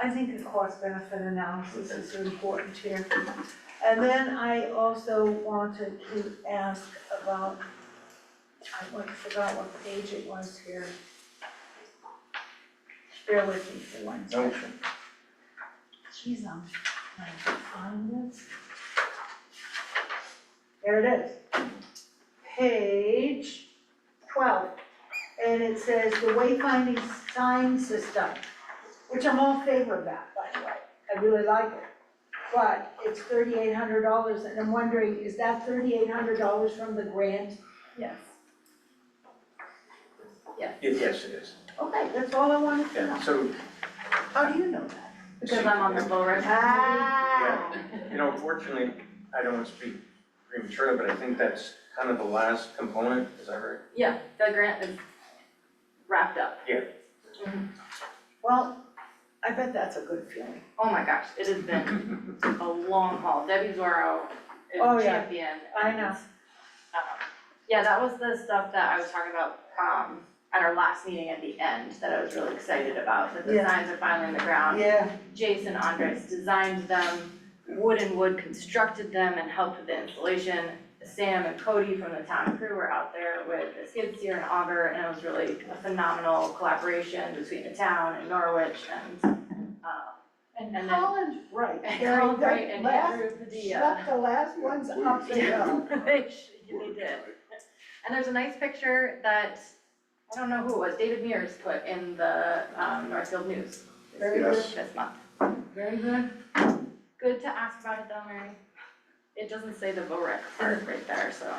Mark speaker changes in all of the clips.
Speaker 1: I think a cost benefit analysis is important here. And then I also wanted to ask about, I went- forgot what page it was here. Bear with me for one
Speaker 2: No.
Speaker 1: second. Jeez, I'm trying to find this. There it is. Page twelve, and it says the wayfinding sign system which I'm all in favor of that, by the way, I really like it. But it's thirty-eight hundred dollars, and I'm wondering, is that thirty-eight hundred dollars from the grant?
Speaker 3: Yes.
Speaker 2: Yes, it is.
Speaker 1: Okay, that's all I wanted to know.
Speaker 2: Yeah, so,
Speaker 1: How do you know that?
Speaker 3: Because I'm on the lower.
Speaker 1: Ah,
Speaker 2: you know, unfortunately, I don't want to speak prematurely, but I think that's kind of the last component, is that right?
Speaker 3: Yeah, the grant is wrapped up.
Speaker 1: well, I bet that's a good feeling.
Speaker 3: Oh my gosh, it has been a long haul. Debbie Zorro
Speaker 1: Oh,
Speaker 3: is
Speaker 1: yeah.
Speaker 3: champion.
Speaker 1: I know.
Speaker 3: Um, Yeah, that was the stuff that I was talking about, um, at our last meeting at the end, that I was really excited about, that the
Speaker 1: Yeah.
Speaker 3: signs are finally in the ground.
Speaker 1: Yeah,
Speaker 3: Jason Andres designed them, Wood and Wood constructed them and helped with the installation. Sam and Cody from the town crew were out there with the skid steer and auger, and it was really a phenomenal collaboration between the town and Norwich and, um,
Speaker 1: and
Speaker 3: And then-
Speaker 1: Colin's right,
Speaker 3: and
Speaker 1: Gary,
Speaker 3: Carl Bright
Speaker 1: that
Speaker 3: and
Speaker 1: last,
Speaker 3: Andrew Padilla.
Speaker 1: swept the uh, last ones up the hill.
Speaker 3: They sh- they did. And there's a nice picture that, I don't know who it was, David Mears put in the, um, Northfield News
Speaker 1: Very good,
Speaker 2: Yes.
Speaker 3: this month.
Speaker 1: very good.
Speaker 3: Good to ask about it though, Mary. It doesn't say the Vorek part right there, so.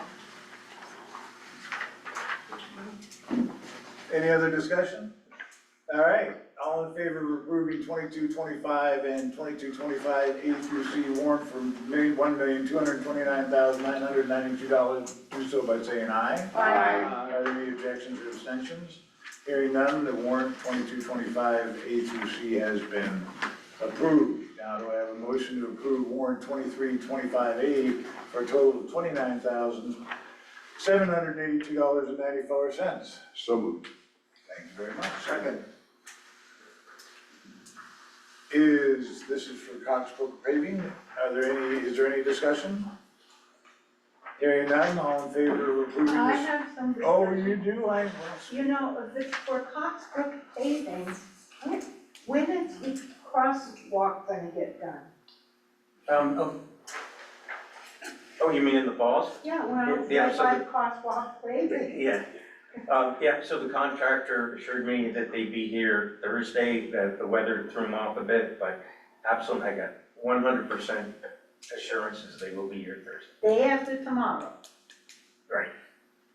Speaker 4: Any other discussion? All right, all in favor of approving twenty-two twenty-five and twenty-two twenty-five A through C warrant for million, one million, two hundred twenty-nine thousand, nine hundred ninety-two dollars, do so by saying aye. Are there any objections or abstentions? Hearing none, the warrant twenty-two twenty-five A through C has been approved. Now, do I have a motion to approve warrant twenty-three twenty-five A for a total of twenty-nine thousand, seven hundred eighty-two dollars and ninety-four cents?
Speaker 5: So moved.
Speaker 4: Thank you very much. Second. Is, this is for Coxbrook paving, are there any, is there any discussion? Hearing none, all in favor of approving
Speaker 1: I
Speaker 4: this?
Speaker 1: have some
Speaker 4: Oh,
Speaker 1: discussion.
Speaker 4: you do, I,
Speaker 1: You know, if it's for Coxbrook paving, when, when is the crosswalk gonna get done?
Speaker 2: Um, oh. Oh, you mean in the falls?
Speaker 1: Yeah, well,
Speaker 2: Yeah,
Speaker 1: it's
Speaker 2: so
Speaker 1: like crosswalk paving.
Speaker 2: Yeah. Um, yeah, so the contractor assured me that they'd be here Thursday, that the weather threw them off a bit, but absolutely, I got one hundred percent assurances they will be here Thursday.
Speaker 1: Day after tomorrow.
Speaker 2: Right.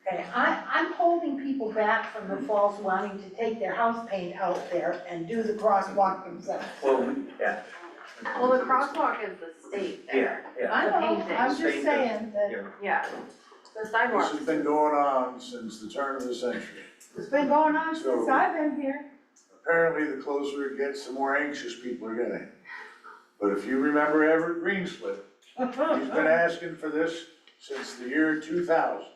Speaker 1: Okay, I, I'm holding people back from the falls wanting to take their house paint out there and do the crosswalk themselves.
Speaker 2: Well, yeah.
Speaker 3: Well, the crosswalk is the state
Speaker 2: Yeah,
Speaker 3: there,
Speaker 2: yeah.
Speaker 1: I know, I'm just
Speaker 2: Paint
Speaker 1: saying that
Speaker 3: yeah. The
Speaker 4: this
Speaker 3: sidewalk,
Speaker 4: has been going on since the turn of the century.
Speaker 1: it's been going on since I've been here.
Speaker 4: Apparently, the closer it gets, the more anxious people are getting. But if you remember Everett Greenslip, he's been asking for this since the year two thousand.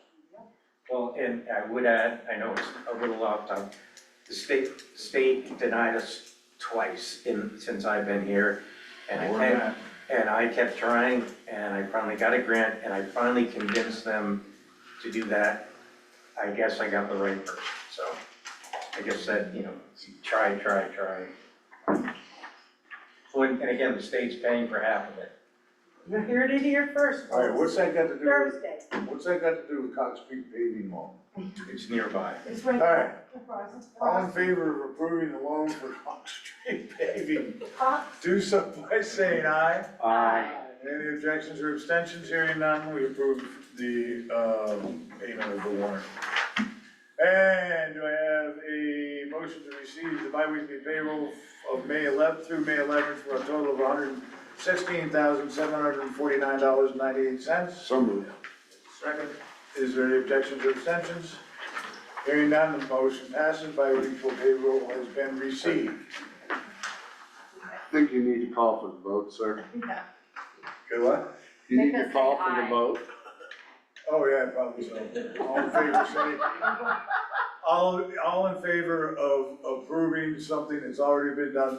Speaker 2: Well, and I would add, I know it's a little off topic, the state, state denied us twice in, since I've been here. And I, and, and I kept trying, and I finally got a grant, and I finally convinced them to do that. I guess I got the right person, so I guess that, you know, try, try, try. Well, And and again, the state's paying for half of it.
Speaker 1: You heard it here first,
Speaker 4: All right, what's that got to do with?
Speaker 1: Thursday,
Speaker 4: What's that got to do with Cox Creek paving loan?
Speaker 2: It's nearby.
Speaker 1: it's
Speaker 4: All
Speaker 1: right
Speaker 4: right,
Speaker 1: there, the cross-
Speaker 4: all in favor of approving the loan for Cox Creek paving,
Speaker 1: cross-
Speaker 4: do so by saying aye.
Speaker 3: Aye.
Speaker 4: Any objections or abstentions, hearing none, we approve the, um, payment of the warrant. And do I have a motion to receive the biweekly payroll of May eleventh through May eleventh for a total of hundred and sixteen thousand, seven hundred and forty-nine dollars, ninety-eight cents?
Speaker 5: So moved.
Speaker 4: Second, is there any objections or abstentions? Hearing none, the motion passes by equal payroll has been received.
Speaker 5: Think you need to call for the vote, sir?
Speaker 4: Good luck.
Speaker 5: You need
Speaker 3: Make
Speaker 5: to
Speaker 3: us
Speaker 5: call
Speaker 3: say
Speaker 5: for
Speaker 3: aye.
Speaker 5: the vote?
Speaker 4: Oh, yeah, probably so. All in favor, say. All, all in favor of approving something that's already been done